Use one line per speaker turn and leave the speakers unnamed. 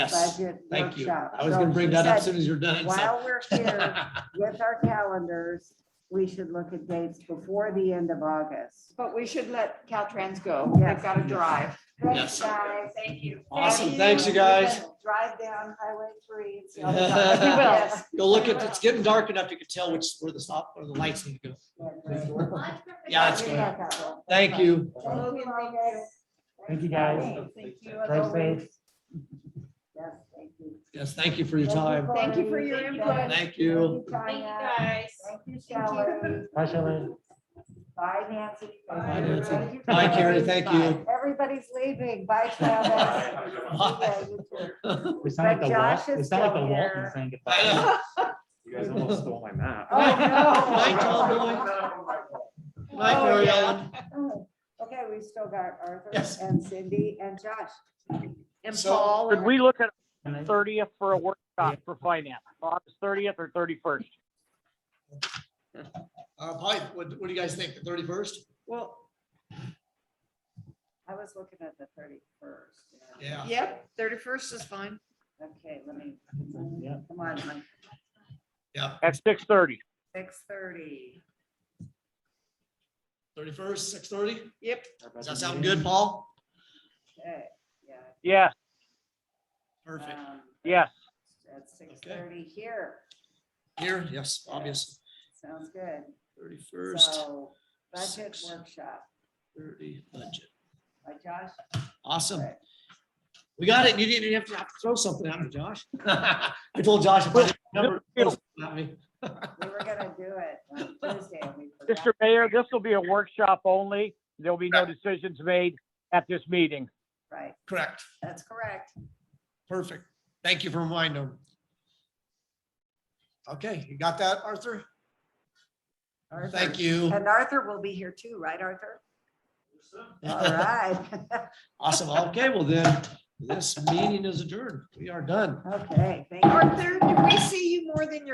Yes,
budget
thank you.
workshop.
I was
So
gonna bring
she
that up as
said,
soon as you're done. so-
While we're here with our calendars, we should look at dates before the end of August.
But we should let Caltrans go.
Yes.
They've got to drive.
Yes.
Guys,
Thank you.
Awesome, thanks you guys.
Drive down Highway three. and see all the
We
cars.
will.
Yes.
Go look at, it's getting dark enough, you can tell which, where the stop, where the lights need to go. Yeah, it's good. Thank you.
Thank you, August.
Thank you, guys.
Thank you.
Drive safe.
Yes, thank you.
Yes, thank you for your
Thank
time.
you,
Thank you for
Cory.
your
Thank
input.
Thank you.
Thank you, Tanya.
guys.
Thank you, Shelley.
Bye, Shelley.
Bye, Nancy.
Bye,
Nancy.
everybody.
Bye, Carrie, thank you.
Everybody's leaving. Bye, Travis. Yeah, you too.
We sound like
But
the Walt,
Josh
we
is
sound like the
still
Walton
here.
saying
I know.
goodbye. You guys almost stole my map.
Oh, no.
Bye, Tom, Bye,
Oh,
Mary
yeah.
Ellen.
Oh, Okay, we still got Arthur
Yes.
and Cindy and Josh.
And
So-
Paul.
Could we look at
And I-
thirtieth for a workshop for finance, August thirtieth or thirty-first?
Uh, Hi, what, what do you guys think, the thirty-first?
Well,
I was looking at the thirty-first.
Yeah.
yep, thirty-first is fine.
Okay, let me,
Yeah.
come on,
At six thirty.
six thirty.
Thirty-first, six-thirty?
Yep.
Does that sound good, Paul?
Okay, yeah.
Yes,
Perfect.
um,
yes.
At six thirty here.
Here, yes, obvious.
Sounds good.
Thirty-first,
So budget
six.
workshop
thirty, budget.
by Josh.
Awesome.
Right.
We got it. You didn't even have to have to throw something out of Josh. I told Josh. if I didn't remember,
Good deal.
not me.
We were gonna do it on Tuesday. and we forgot.
Mr. Mayor, this will be a workshop only. There'll be no decisions made at this meeting.
Right,
Correct.
that's correct.
Perfect. Thank you for reminding him. Okay, you got that, Arthur? Thank you.
And Arthur will be here too, right, Arthur? All right.
Awesome. Okay, well then, this meeting is adjourned. We are done.
Okay, thank you.
Arthur, did we see you more than your